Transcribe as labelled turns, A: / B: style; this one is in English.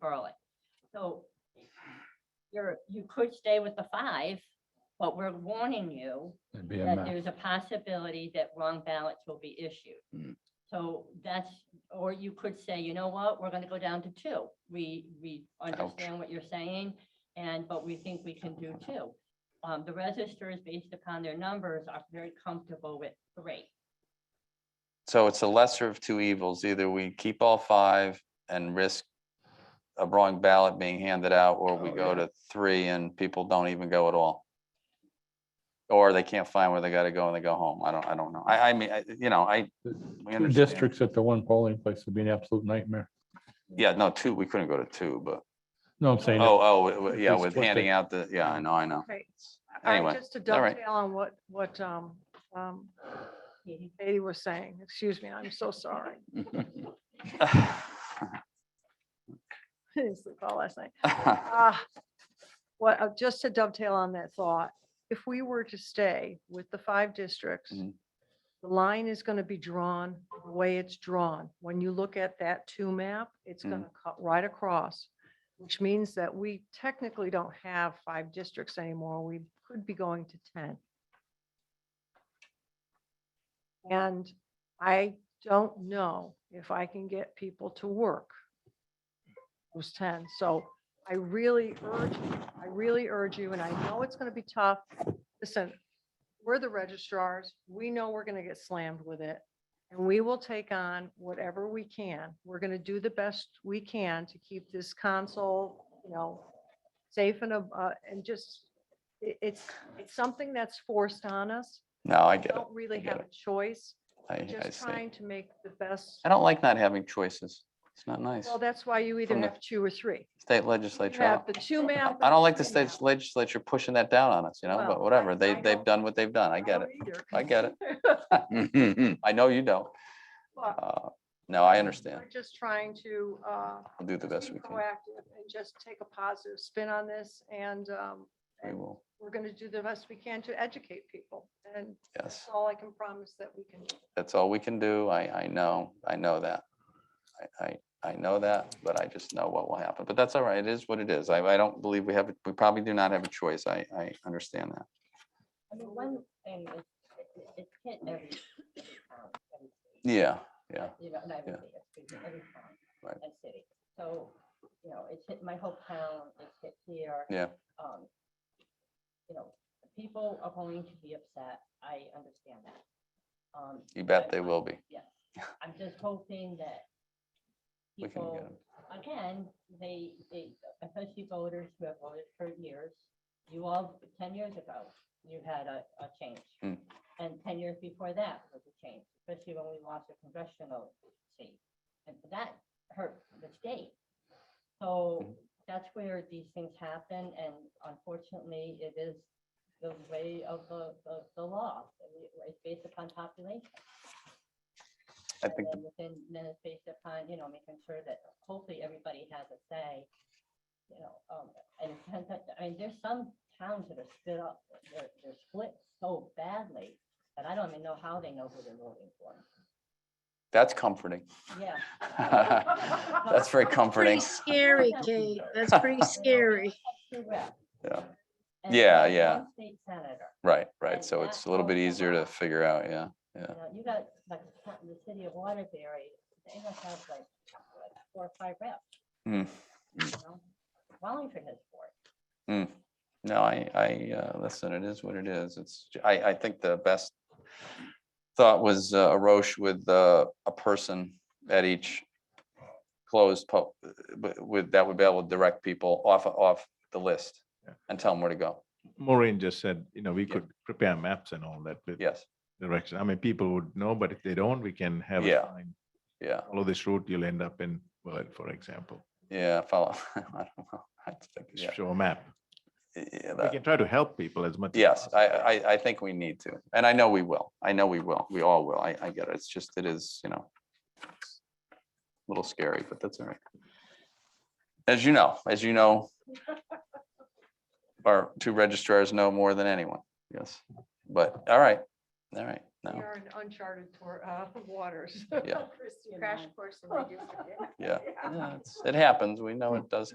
A: Berlin. So you're, you could stay with the five, but we're warning you
B: It'd be a
A: that
B: mess.
A: there's a possibility that wrong ballots will be issued.
C: Mm.
A: So that's, or you could say, you know what, we're gonna go down to two. We, we understand what you're saying and, but we think we can do two. Um, the registers, based upon their numbers, are very comfortable with three.
C: So it's a lesser of two evils. Either we keep all five and risk a wrong ballot being handed out, or we
B: Oh,
C: go
B: yeah.
C: to three and people don't even go at all. Or they can't find where they gotta go and they go home. I don't, I don't know. I, I mean, I, you know, I, we
B: Two
C: understand.
B: districts at the one polling place would be an absolute nightmare.
C: Yeah, no, two, we couldn't go to two, but,
B: No, I'm saying,
C: oh, oh, w- w- yeah,
B: Just
C: with
B: what
C: handing
B: they-
C: out the, yeah, I know, I know.
D: Okay. I-
C: Anyway,
D: Just to
C: all right.
D: dovetail on what, what um, um, Katie was saying, excuse me, I'm so sorry. I didn't sleep all last night. Ah, What, uh, just to dovetail on that thought, if we were to stay with the five districts,
C: Mhm.
D: the line is going to be drawn the way it's drawn. When you look at that two map, it's
C: Mhm.
D: going to cut right across, which means that we technically don't have five districts anymore. We could be going to 10. And I don't know if I can get people to work those 10. So I really urge, I really urge you, and I know it's going to be tough. Listen, we're the registrars. We know we're going to get slammed with it. And we will take on whatever we can. We're going to do the best we can to keep this console, you know, safe and, ab- uh, and just, it, it's, it's something that's forced on us.
C: No, I
D: We
C: get it.
D: Don't really
C: get
D: have
C: it.
D: a choice.
C: I, I
D: Just
C: see.
D: trying to make the best.
C: I don't like not having choices. It's not nice.
D: Well, that's why you either
C: From the-
D: have two or three.
C: State
D: You
C: legislature. I don't-
D: have the two map.
C: I don't like the
D: and three
C: state legislature pushing that down on us, you know,
D: Well,
C: but
D: I-
C: whatever. They,
D: I
C: they've
D: don't-
C: done what they've done. I
D: map.
C: get it.
D: don't Oh, either.
C: I get it.
E: Mhm, mhm.
C: I know you don't.
D: But
C: Uh, No, I understand.
D: We're just trying to, uh,
C: We'll do the best
D: be
C: we can.
D: proactive and just take a positive spin on this and, um,
C: We will,
D: we're going to do the best we can to educate people. And that's
C: yes.
D: all I can promise that we can do.
C: That's all we can do. I, I know, I know that. I, I, I know that, but I just know what will happen. But that's all right. It is what it is. I, I don't believe we have, a- we probably do not have a choice. I, I understand that.
A: I mean, one thing is, it- it- it's hit every town, every state.
C: Yeah, yeah.
A: You know, not every
C: yeah.
A: state, excuse me, every town
C: Right.
A: and city. So, you know, it's hit my whole town, it's hit here.
C: Yeah.
A: Um, You know, people are going to be upset. I understand that. Um,
C: You bet
A: but
C: they
A: I'm-
C: will be.
A: Yeah, I'm just hoping that
C: We can get
A: people
C: 'em.
A: again, they, they, especially voters who have voted for years, you all, ten years ago, you had a, a change.
C: Hmm.
A: And ten years before that was a change, especially when we lost a congressional seat. And that hurt the state.
C: Hmm.
A: So that's where these things happen, and unfortunately, it is the way of the, the, the law. It's based upon population.
C: I
A: And
C: think, the-
A: then within, then it's based upon, you know, making sure that hopefully everybody has a say. You know, um, and it depends, on- I mean, there's some towns that are split up, they're, they're split so badly that I don't even know how they know who they're voting for.
C: that's comforting.
A: Yeah.
C: That's very
F: Pretty
C: comforting.
F: scary, Kate. That's pretty scary.
A: two reps.
C: Yeah.
A: And
C: Yeah,
A: one-
C: yeah.
A: one State senator,
C: Right, right.
A: And
C: So
A: that
C: it's a little bit
A: goes a
C: easier to
A: lot.
C: figure out, yeah.
A: you know, you got, like, the town- the city of Waterbury, they must have like what, four or five reps,
C: Hmm.
A: you know? Wallingford has four.
C: hmm. No, I, I, uh, listen, it is what it is. It's, j- I, I think the best thought was uh, a Roche with, uh, a person at each closed po, wi- with, that would be able to direct people off, off the list
G: Yeah.
C: and tell them where to go.
G: Maureen just said, you know, we
C: Yeah.
G: could prepare maps and all that with
C: Yes,
G: direction. I mean, people would know, but if they don't, we can have a
C: Yeah.
G: sign.
C: yeah,
G: Follow this route, you'll end up in Berlin, for example.
C: yeah, follow. I don't know. I think, yeah,
G: Show a map.
C: yeah,
G: We
C: that-
G: can try to help people as much. as
C: Yes,
G: possible.
C: I, I, I think we need to, and I know we will. I know we will. We all will. I, I get it. It's just, it is, you know, a little scary, but that's all right. As you know, as you know, our two registrars know more than anyone. Yes, but all right, all right. no,
D: You're in uncharted tor- uh, waters.
C: Yeah.
A: Christy and I.
E: Crash course in redistricting.
C: yeah. Yeah, it's- It happens. We know it does